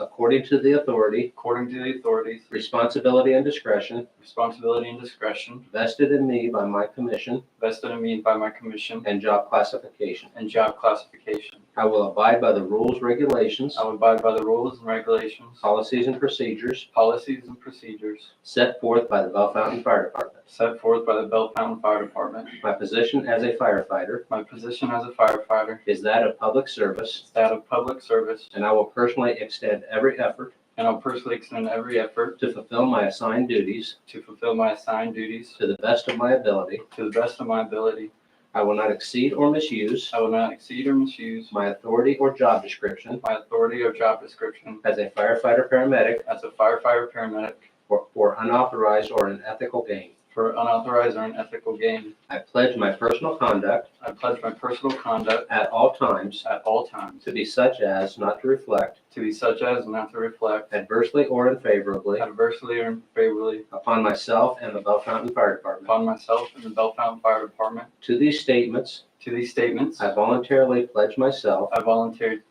according to the authority, according to the authorities, responsibility, and discretion responsibility, and discretion vested in me by my commission vested in me by my commission and job classification. and job classification. I will abide by the rules, regulations, I will abide by the rules and regulations, policies, and procedures policies, and procedures set forth by the Bell Fountain Fire Department. set forth by the Bell Fountain Fire Department. My position as a firefighter My position as a firefighter is that of public service, is that of public service, and I will personally extend every effort and I'll personally extend every effort to fulfill my assigned duties to fulfill my assigned duties to the best of my ability. to the best of my ability. I will not exceed or misuse I will not exceed or misuse my authority or job description my authority or job description as a firefighter, paramedic, as a firefighter paramedic or for unauthorized or unethical gain. for unauthorized or unethical gain. I pledge my personal conduct I pledge my personal conduct at all times at all times to be such as not to reflect to be such as not to reflect adversely or unfavorably adversely or unfavorably upon myself and the Bell Fountain Fire Department. upon myself and the Bell Fountain Fire Department. To these statements, To these statements, I voluntarily pledge myself I volunteered,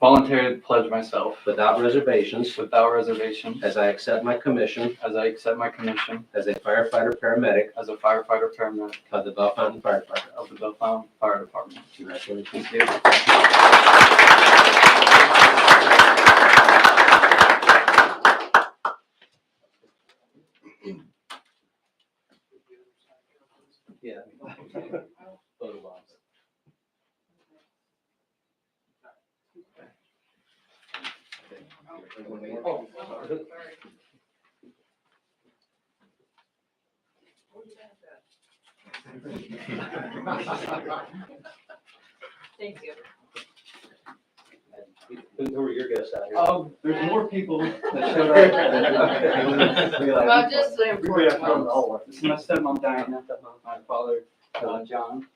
voluntarily pledge myself without reservations without reservation as I accept my commission as I accept my commission as a firefighter, paramedic as a firefighter paramedic of the Bell Fountain Fire Department. of the Bell Fountain Fire Department. Congratulations. Thank you. Yeah. Photo bombs. Thank you. Who were your guests out here? Um, there's more people that showed up. Well, Well, just the important ones. This is my stepmom Diana, my father, uh, John.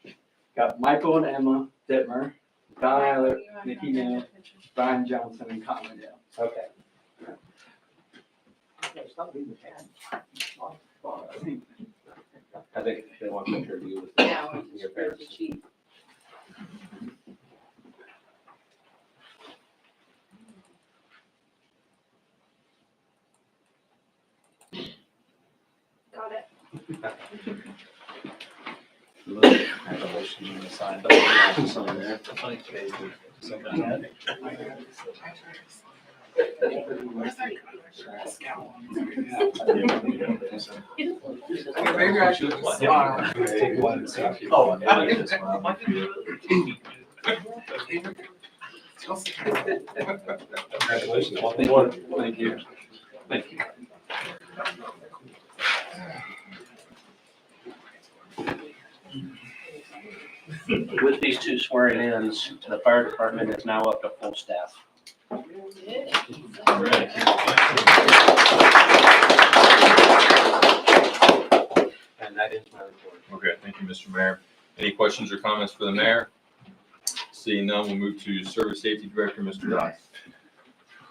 Got Michael and Emma Ditmer, Don Eiler, Nikki Mann, Brian Johnson, and Commondale. Okay. I think they want to interview you with Yeah, the- your parents. Got it. Maybe I should just smile. Oh, Congratulations. Thank you. Thank you. With these two swearing ins, the fire department is now up to full staff. And that is my report. Okay, thank you, Mr. Mayor. Any questions or comments for the mayor? Seeing none, we'll move to Service Safety Director, Mr. Dodds.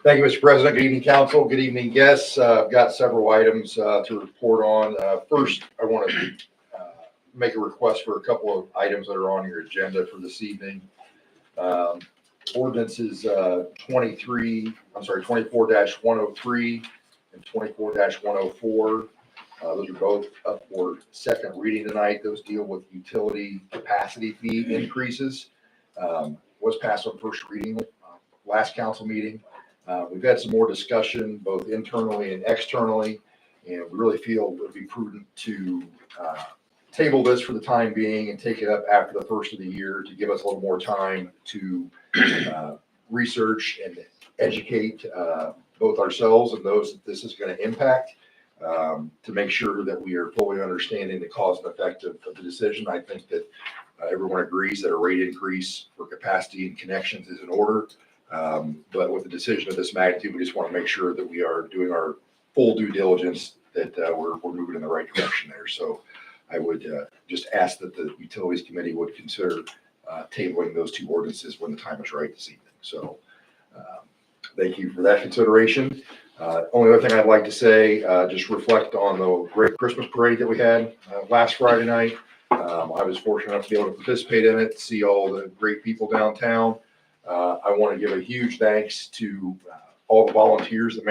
Thank you, Mr. President. Good evening, council. Good evening, guests. Uh, I've got several items uh, to report on. Uh, First, I want to make a request for a couple of items that are on your agenda for this evening. Um, Ordinances uh, 23, I'm sorry, 24-103 and 24-104. Uh, Those are both up for second reading tonight. Those deal with utility capacity fee increases. Um, Was passed on first reading uh, last council meeting. Uh, We've had some more discussion, both internally and externally, and we really feel it would be prudent to uh, table this for the time being and take it up after the first of the year to give us a little more time to uh, research and educate uh, both ourselves and those that this is going to impact, um, to make sure that we are fully understanding the cause and effect of of the decision. I think that uh, everyone agrees that a rate increase for capacity and connections is in order. Um, But with a decision of this magnitude, we just want to make sure that we are doing our full due diligence, that uh, we're, we're moving in the right direction there. So I would uh, just ask that the Utilities Committee would consider uh, tabling those two ordinances when the time is right this evening. So um, thank you for that consideration. Uh, Only other thing I'd like to say, uh, just reflect on the great Christmas parade that we had uh, last Friday night. Um, I was fortunate enough to be able to participate in it, see all the great people downtown. Uh, I want to give a huge thanks to uh, all the volunteers that